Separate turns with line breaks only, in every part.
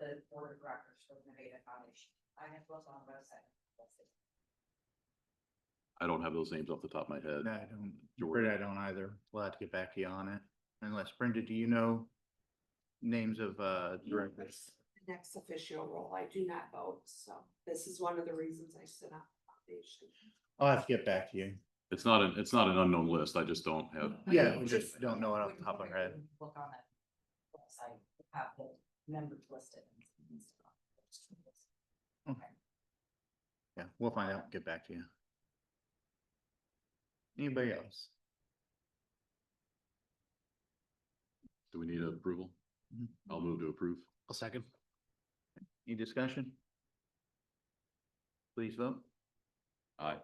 the board of directors for the Nevada Foundation. I have those on the website. That's it.
I don't have those names off the top of my head.
No, I don't,
Jordan.
Brenda, I don't either. We'll have to get back to you on it. Unless Brenda, do you know names of, uh, directors?
the Next official role, I do not vote, so this is one of the reasons I sit on the foundation.
I'll have to get back to you.
It's not an, it's not an unknown list. I just don't have.
Yeah, we just don't know it off
When
the
you
top of our head.
Look on that website, you have the members listed. and stuff.
Yeah, we'll find out, and get back to you. Anybody else?
Do we need approval?
Mhm.
Mm-hmm.
I'll move to approve.
I'll second.
Any discussion? Please vote.
Aye.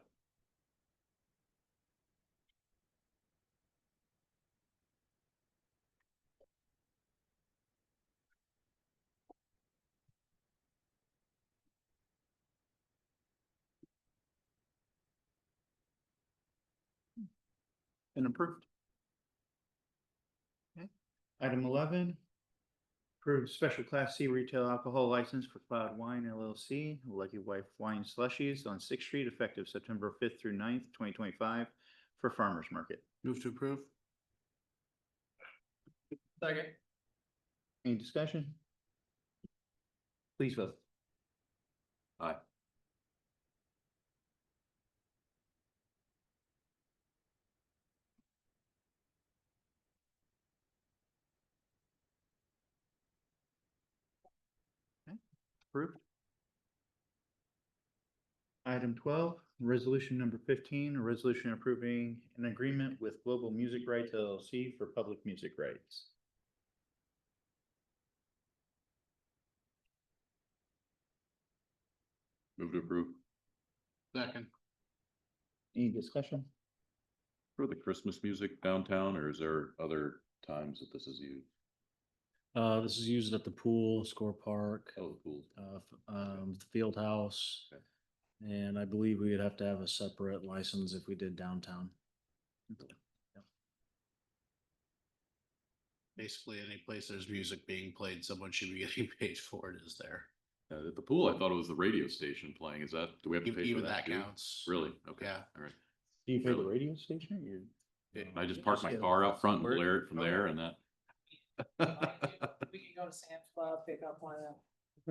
And approved. Okay, item eleven. Approved special class C retail alcohol license for Cloud Wine LLC, Lucky Wife Wine Slushies on Sixth Street effective September fifth through 9th, twenty twenty-five for farmer's market.
Move to approve. Second.
Any discussion? Please vote. Approved. Item twelve, resolution number fifteen, a resolution approving an agreement with Global Music Rights LLC for public music rights.
Move to approve.
Second.
Any discussion?
For the Christmas music downtown, or is there other times that this is used?
Uh, this is used at the pool, score park,
Oh, cool.
uh, f- um, the field house.
Okay.
And I believe we would have to have a separate license if we did downtown.
basically any place there's music being played, someone should be getting paid for it is there.
Uh, at the pool, I thought it was the radio station playing. Is that, do we have to
Even
pay for
even
that
that
too?
counts.
Really? Okay.
Yeah.
All right.
Do you pay the
Really?
radio station? or you-
Yeah.
I just park my
Yeah.
car out front and
Where-
blare it from there and that.
We can go to Sam's Club, pick up one of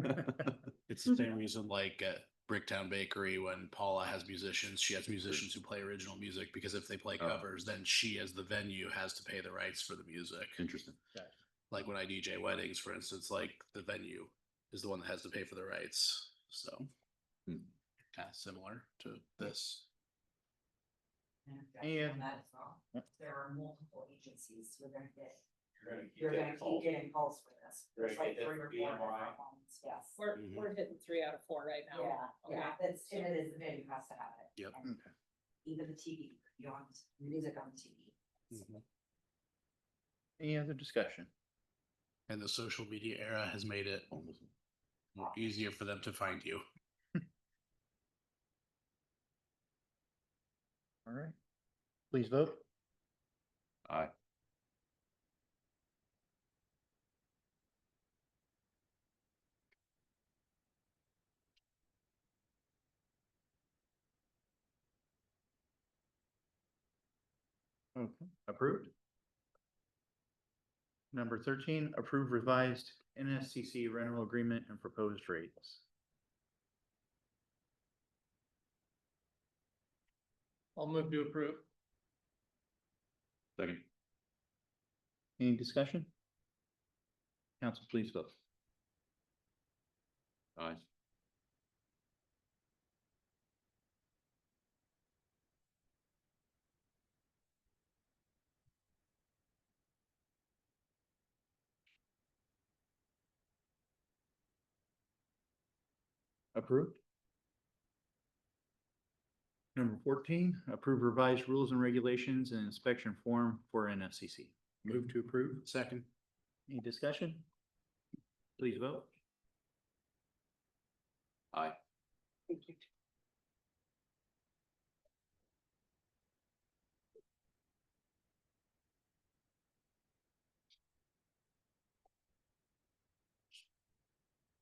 them.
It's
Mm-hmm.
the same reason like at Bricktown Bakery, when Paula has musicians, she has musicians who play original music because if they play
Oh.
covers, then she as the venue has to pay the rights for the music.
Interesting.
Like when I DJ weddings, for instance, like the venue is the one that has to pay for the rights. So
Hmm.
kind of similar to this.
And objection
And-
on that as well.
Yep.
There are multiple agencies you're gonna get, you're gonna keep getting calls for this. There's like three or four different ones, Yes.
We're,
Mhm.
we're hitting three out of four right now.
Yeah, yeah,
Okay.
that's, and it is, the venue has to have it.
Yep.
And
Okay.
Even the TV, beyond music on TV.
Any other discussion?
And the social media era has made it almost more easier for them to find you.
All right. Please vote.
Aye.
Okay, approved. Number thirteen, approve revised NSCC rental agreement and proposed rates.
I'll move to approve.
Second.
Any discussion? Council, please vote.
Aye.
Approved. Number fourteen, approve revised rules and regulations and inspection form for NFCC.
Move to approve. Second.
Any discussion? Please vote.
Aye.
Thank you.